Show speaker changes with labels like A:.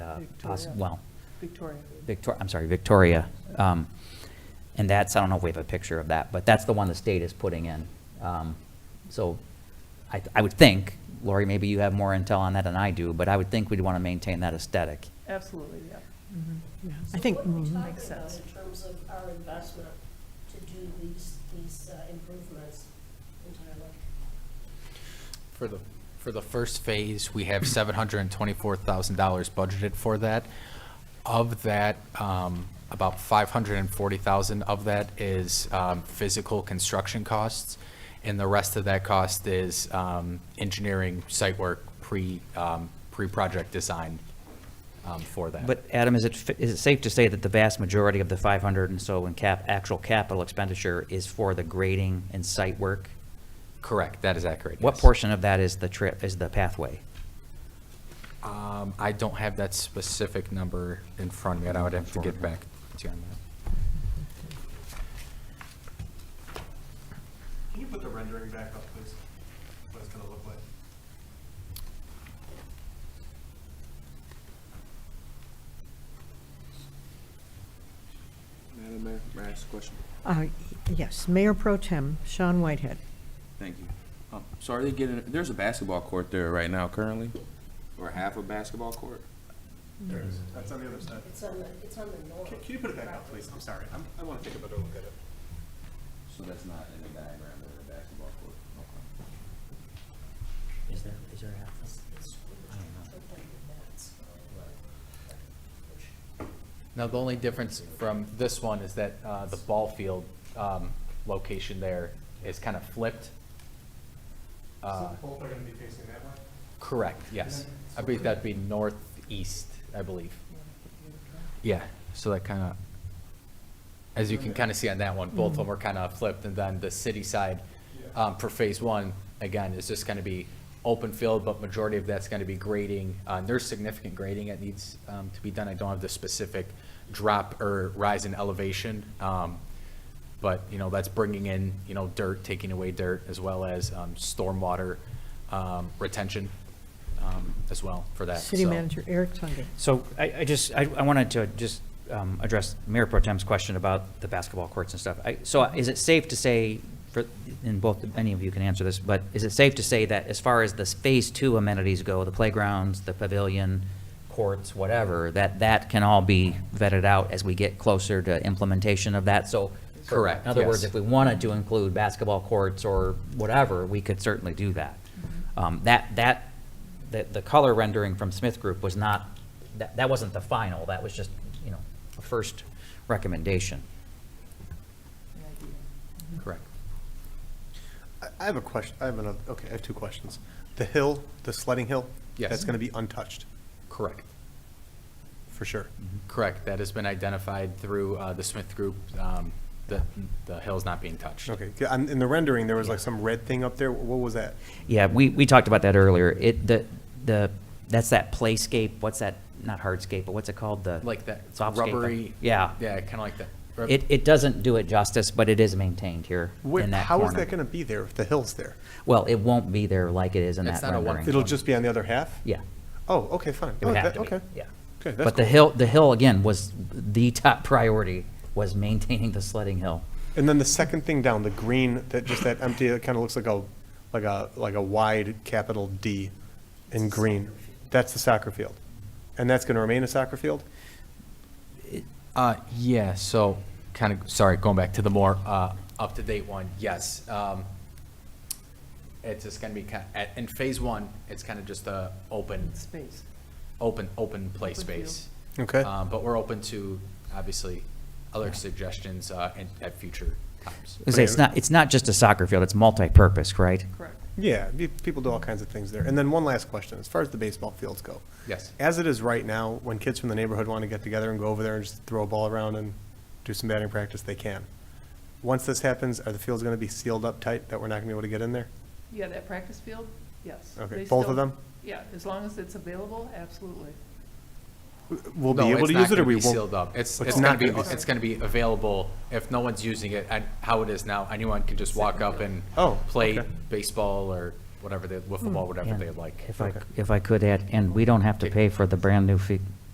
A: poss-
B: Victoria.
A: well,
B: Victoria.
A: Victoria, I'm sorry, Victoria. Um, And that's, I don't know if we have a picture of that, but that's the one the state is putting in. Um, So I, I would think, Lori, maybe you have more intel on that than I do, but I would think we'd want to maintain that aesthetic.
B: Absolutely, yeah.
C: I think, mm,
D: So what are we talking
B: Makes
D: about
B: sense.
D: in terms of our investment to do these, these uh, improvements entirely?
E: For the, for the first phase, we have seven hundred and twenty-four thousand dollars budgeted for that. Of that, um, about five hundred and forty thousand of that is, um, physical construction costs. And the rest of that cost is, um, engineering, site work, pre, um, pre-project design, um, for that.
A: But Adam, is it, fi- is it safe to say that the vast majority of the 500 and so in cap, actual capital expenditure is for the grading and site work?
E: Correct, that is accurate.
A: What
E: yes.
A: portion of that is the trip, is the pathway?
E: Um, I don't have that specific number in front of me, and I would have to get back to you on that.
F: Can you put the rendering back up, please? What it's gonna look like?
G: Madam Mayor, may I ask a question?
C: uh, yes, Mayor Pro Tem Sean Whitehead.
G: Thank you. Um, So are they getting, there's a basketball court there right now currently? Or half a basketball court?
F: There it is. That's on the other side.
D: It's on the, it's on the north.
F: Can, can you put it back up, please? I'm sorry. I'm, I wanna take a better look at it.
G: So that's not in the diagram, there's a basketball court. Okay.
A: Is there, is there
D: It's- it's
A: I don't know.
D: like that's, uh, which-
E: Now, the only difference from this one is that uh, the ball field um, location there is kind of flipped. Uh,
F: So Both are gonna be facing that way?
E: Correct, yes. I believe that'd be northeast, I believe. Yeah, so that kind of, as you can kind of see on that one, both of them are kind of flipped. And then the city side
F: Yeah.
E: um, for Phase One, again, is just going to be open field, but majority of that's going to be grading. Uh, and There's significant grading that needs um, to be done. I don't have the specific drop or rise in elevation. um, But, you know, that's bringing in, you know, dirt, taking away dirt, as well as um, stormwater um, retention um, as well for that.
C: City
E: so.
C: Manager Eric Tunge.
A: So I, I just, I, I wanted to just um, address Mayor Pro Tem's question about the basketball courts and stuff. I, so is it safe to say, for, and both, any of you can answer this, but is it safe to say that as far as the phase two amenities go, the playgrounds, the pavilion, courts, whatever, that that can all be vetted out as we get closer to implementation of that? So.
E: Correct,
A: In other words,
E: yes.
A: if we wanted to include basketball courts or whatever, we could certainly do that.
E: Mm-hmm.
A: Um, That, that, the, the color rendering from Smith Group was not, that, that wasn't the final, that was just, you know, a first recommendation.
E: Correct.
F: I, I have a question. I have another, okay, I have two questions. The hill, the sledding hill?
E: Yes.
F: That's gonna be untouched,
E: Correct.
F: for sure.
A: Mm-hmm.
E: Correct. That has been identified through uh, the Smith Group, um, the the hill's not being touched.
F: Okay, c- and in the rendering, there was like some red thing up there. What was that?
A: Yeah, we, we talked about that earlier. It, the, the, that's that playscape, what's that, not hardscape, but what's it called, the?
E: Like that
A: softscape?
E: rubbery.
A: Yeah.
E: Yeah, kind of like that. rub-
A: It, it doesn't do it justice, but it is maintained here
F: Where-
A: in that
F: How is
A: corner.
F: that gonna be there if the hill's there?
A: Well, it won't be there like it is in that
E: It's not a one-
A: rendering.
F: It'll just be on the other half?
A: Yeah.
F: Oh, okay, fine.
A: It would
F: Oh,
A: have
F: that-
A: to be,
F: Okay.
A: yeah.
F: Okay, that's
A: But the
F: cool.
A: hill, the hill again was the top priority, was maintaining the sledding hill.
F: And then the second thing down, the green, that just that empty, it kind of looks like a, like a, like a wide capital D in green. That's the soccer field. And that's going to remain a soccer field?
E: Uh, yeah, so kind of, sorry, going back to the more, uh, up-to-date one, yes. Um, it's just gonna be kind, at, in phase one, it's kind of just a open,
B: Space.
E: open, open play
B: Open field.
E: space.
F: Okay.
E: Um, but we're open to, obviously, other suggestions, uh, in, at future times.
A: I say, It's not, it's not just a soccer field, it's multi-purpose, right?
B: Correct.
F: Yeah, pe- people do all kinds of things there. And then one last question, as far as the baseball fields go.
E: Yes.
F: As it is right now, when kids from the neighborhood want to get together and go over there and just throw a ball around and do some batting practice, they can. Once this happens, are the fields going to be sealed up tight that we're not going to be able to get in there?
B: Yeah, that practice field, yes.
F: Okay,
B: They
F: both of
B: still-
F: them?
B: Yeah, as long as it's available, absolutely.
F: We'll be
E: No,
F: able
E: it's
F: to
E: not
F: use it or
E: gonna
F: we
E: be
F: won't?
E: Sealed up. It's,
F: But
E: it's gonna
F: not
E: be,
F: gonna be-
E: it's gonna be available if no one's using it, and how it is now, anyone can just walk up and
F: Oh,
E: play
F: okay.
E: baseball or whatever they, wiffle ball, whatever
A: And
E: they like.
A: If I,
F: Okay.
A: if I could add, and we don't have to pay for the brand-new fi-